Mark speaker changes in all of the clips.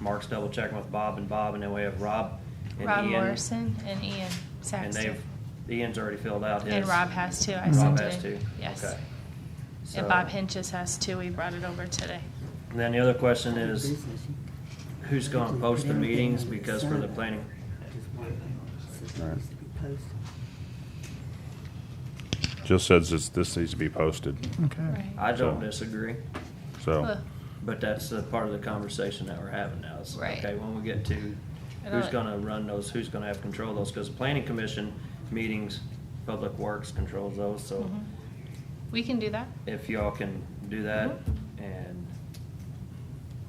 Speaker 1: Mark's double checking with Bob and Bob, and then we have Rob and
Speaker 2: Rob
Speaker 1: Ian.
Speaker 2: Morrison and Ian
Speaker 1: And
Speaker 2: Saxton.
Speaker 1: they've, Ian's already filled out his.
Speaker 2: And Rob has two, I
Speaker 1: Rob
Speaker 2: sent
Speaker 1: has
Speaker 2: it
Speaker 1: two?
Speaker 2: in. Yes.
Speaker 1: Okay. So-
Speaker 2: And Bob Hinches has two, we brought it over today.
Speaker 1: And then the other question is, who's gonna post the meetings, because for the planning,
Speaker 3: Jill says this, this needs to be posted,
Speaker 4: Okay.
Speaker 1: I don't disagree,
Speaker 3: so.
Speaker 2: Ugh.
Speaker 1: but that's the part of the conversation that we're having now. is,
Speaker 2: Right.
Speaker 1: Okay, when we get to
Speaker 2: I
Speaker 1: who's
Speaker 2: don't-
Speaker 1: gonna run those, who's gonna have control of those, because the planning commission meetings, Public Works controls those, so
Speaker 2: Mhm. We can do that.
Speaker 1: if y'all can do that,
Speaker 2: Mm-hmm.
Speaker 1: and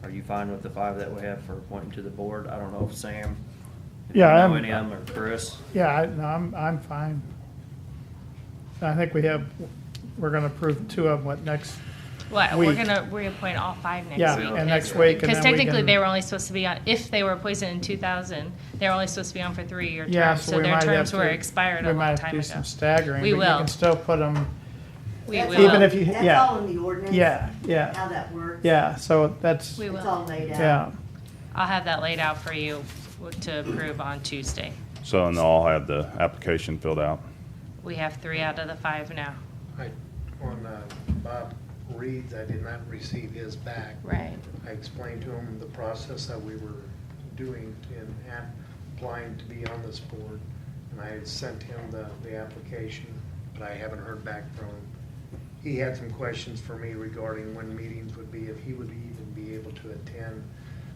Speaker 1: are you fine with the five that we have for appointing to the board? I don't know if Sam, if you
Speaker 4: Yeah, I
Speaker 1: know
Speaker 4: am-
Speaker 1: any of them, or Chris.
Speaker 4: Yeah, I, no, I'm, I'm fine. I think we have, we're gonna approve two of them, what, next,
Speaker 2: Well, we're
Speaker 4: Week.
Speaker 2: gonna reappoint all five next
Speaker 4: yeah,
Speaker 2: week.
Speaker 4: and next week, and
Speaker 2: Because
Speaker 4: then we
Speaker 2: technically,
Speaker 4: can-
Speaker 2: they were only supposed to be on, if they were appointed in 2000, they were only supposed to be on for three-year terms.
Speaker 4: Yeah,
Speaker 2: So
Speaker 4: we
Speaker 2: their
Speaker 4: might have
Speaker 2: terms
Speaker 4: to-
Speaker 2: were expired
Speaker 4: we
Speaker 2: a long
Speaker 4: might have to
Speaker 2: time
Speaker 4: do
Speaker 2: ago.
Speaker 4: some staggering,
Speaker 2: We
Speaker 4: but you
Speaker 2: will.
Speaker 4: can still put them,
Speaker 2: We
Speaker 5: That's
Speaker 2: will.
Speaker 4: Even if you- yeah.
Speaker 5: That's all in the ordinance.
Speaker 4: yeah, yeah,
Speaker 5: How that works.
Speaker 4: yeah, so that's,
Speaker 2: We
Speaker 5: It's
Speaker 2: will.
Speaker 5: all laid out.
Speaker 4: yeah.
Speaker 2: I'll have that laid out for you to approve on Tuesday.
Speaker 3: So, and they'll all have the application filled out.
Speaker 2: We have three out of the five now.
Speaker 6: I, on uh, Bob Reed's, I did not receive his back.
Speaker 2: Right.
Speaker 6: I explained to him the process that we were doing in app- applying to be on this board, and I had sent him the, the application, but I haven't heard back from him. He had some questions for me regarding when meetings would be, if he would even be able to attend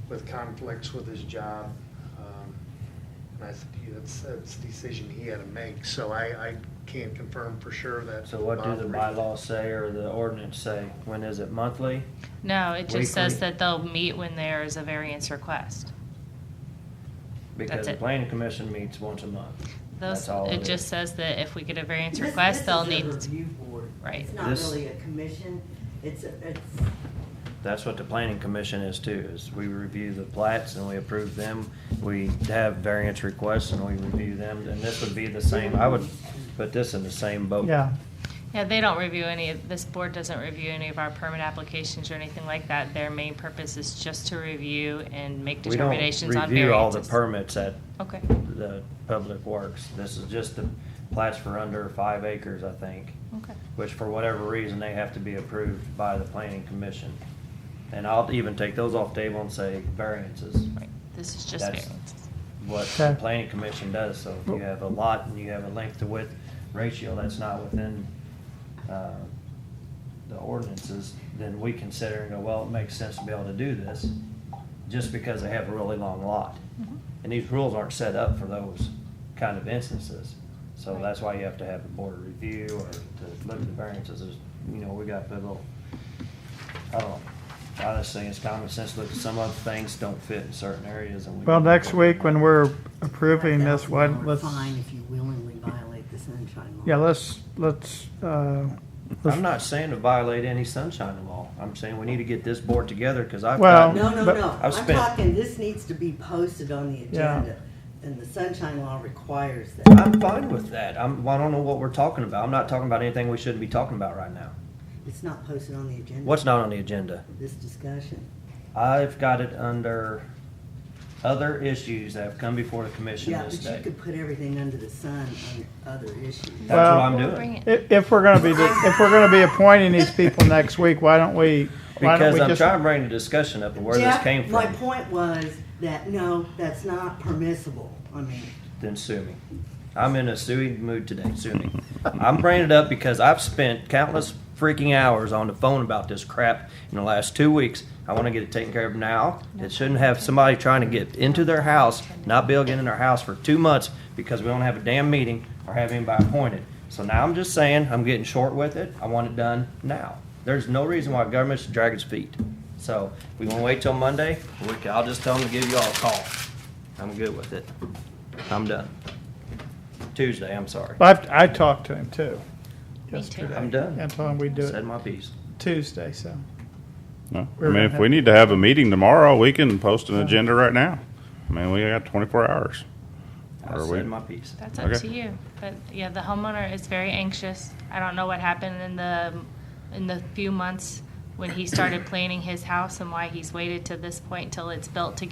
Speaker 6: with conflicts with his job. Um, And I said, "Yeah, that's, that's a decision he had to make, so I, I can't confirm for sure that.
Speaker 1: So what do
Speaker 6: Bob
Speaker 1: the
Speaker 6: Reed-
Speaker 1: bylaws say or the ordinance say? When is it monthly?
Speaker 2: No, it just says
Speaker 1: Weekly.
Speaker 2: that they'll meet when there is a variance request.
Speaker 1: Because
Speaker 2: That's
Speaker 1: the
Speaker 2: it.
Speaker 1: planning commission meets once a month.
Speaker 2: Those,
Speaker 1: That's all
Speaker 2: it
Speaker 1: is.
Speaker 2: just says that if we get a variance
Speaker 5: This-
Speaker 2: request, they'll need,
Speaker 5: This is a review board.
Speaker 2: Right.
Speaker 5: It's not
Speaker 1: This-
Speaker 5: really a commission, it's, a- it's,
Speaker 1: That's what the planning commission is too, is we review the plats and we approve them. We have variance requests and we review them, and this would be the same, I would put this in the same boat.
Speaker 4: Yeah,
Speaker 2: yeah, they don't review any, of this board doesn't review any of our permit applications or anything like that. Their main purpose is just to review and make
Speaker 1: We don't
Speaker 2: determinations on variances.
Speaker 1: Review all the permits at
Speaker 2: Okay,
Speaker 1: the public works. This is just the plats for under five acres, I think.
Speaker 2: okay.
Speaker 1: which for whatever reason, they have to be approved by the planning commission. And I'll even take those off the table and say variances,
Speaker 2: Right, this is just
Speaker 1: That's-
Speaker 2: variances.
Speaker 1: what the
Speaker 4: Okay.
Speaker 1: planning commission does. So if you have a lot and you have a length to width ratio that's not within, uh, the ordinances, then we consider and go, well, it makes sense to be able to do this just because they have a really long lot.
Speaker 4: Mm-hmm.
Speaker 2: Mhm.
Speaker 1: And these rules aren't set up for those kind of instances. So
Speaker 2: Right.
Speaker 1: that's why you have to have a board review or to look at the variances is, you know, we got a little, I don't know. I just think it's common sense, look, some other things don't fit in certain areas and we.
Speaker 4: well, next week when we're approving this one,
Speaker 5: $5,000
Speaker 4: let's,
Speaker 5: fine if you willingly violate the sunshine law.
Speaker 4: yeah, let's, let's, uh, let's-
Speaker 1: I'm not saying to violate any sunshine law. I'm saying we need to get this board together because I've
Speaker 4: Well-
Speaker 1: gotten,
Speaker 5: No, no,
Speaker 4: But-
Speaker 5: no,
Speaker 1: I've
Speaker 5: I'm
Speaker 1: spent-
Speaker 5: talking, this needs to be posted on the
Speaker 4: Yeah.
Speaker 5: agenda, and the sunshine law requires that.
Speaker 1: I'm fine with that. I'm, I don't know what we're talking about. I'm not talking about anything we shouldn't be talking about right now.
Speaker 5: It's not posted on the agenda.
Speaker 1: What's not on the agenda?
Speaker 5: This discussion.
Speaker 1: I've got it under other issues that have come before the commission
Speaker 5: Yeah,
Speaker 1: this
Speaker 5: but you
Speaker 1: day.
Speaker 5: could put everything under the sun on other issues.
Speaker 1: That's
Speaker 4: Well-
Speaker 1: what I'm
Speaker 2: We'll
Speaker 1: doing.
Speaker 2: bring it.
Speaker 4: if, if we're gonna be, if we're gonna be appointing these people next week, why don't we, why don't
Speaker 1: Because
Speaker 4: we
Speaker 1: I'm
Speaker 4: just?
Speaker 1: trying to bring the discussion up of where this
Speaker 5: Jeff,
Speaker 1: came
Speaker 5: My
Speaker 1: from,
Speaker 5: point was that, no, that's not permissible. I mean,
Speaker 1: then sue me. I'm in a suing mood today, sue me. I'm bringing it up because I've spent countless freaking hours on the phone about this crap in the last two weeks. I want to get it taken care of now. It shouldn't have somebody trying to get into their house, not be able to get in their house for two months because we don't have a damn meeting or have anybody appointed. So now I'm just saying, I'm getting short with it. I want it done now. There's no reason why government should drag its feet. So if we want to wait till Monday, we can- I'll just tell them to give you all a call. I'm good with it. I'm done. Tuesday, I'm sorry.
Speaker 4: I, I talked to him too.
Speaker 2: Me too.
Speaker 4: yesterday,
Speaker 1: I'm done.
Speaker 4: And told him we'd do
Speaker 1: Said
Speaker 4: it
Speaker 1: my piece.
Speaker 4: Tuesday, so.
Speaker 3: No, I
Speaker 4: We're
Speaker 3: mean,
Speaker 4: gonna
Speaker 3: if
Speaker 4: have-
Speaker 3: we need to have a meeting tomorrow, we can post an agenda right now. I mean, we got twenty-four hours.
Speaker 1: I
Speaker 3: Are we-
Speaker 1: said my piece.
Speaker 2: That's up
Speaker 3: Okay.
Speaker 2: to you. But yeah, the homeowner is very anxious. I don't know what happened in the in the few months when he started planning his house and why he's waited to this point till it's built to get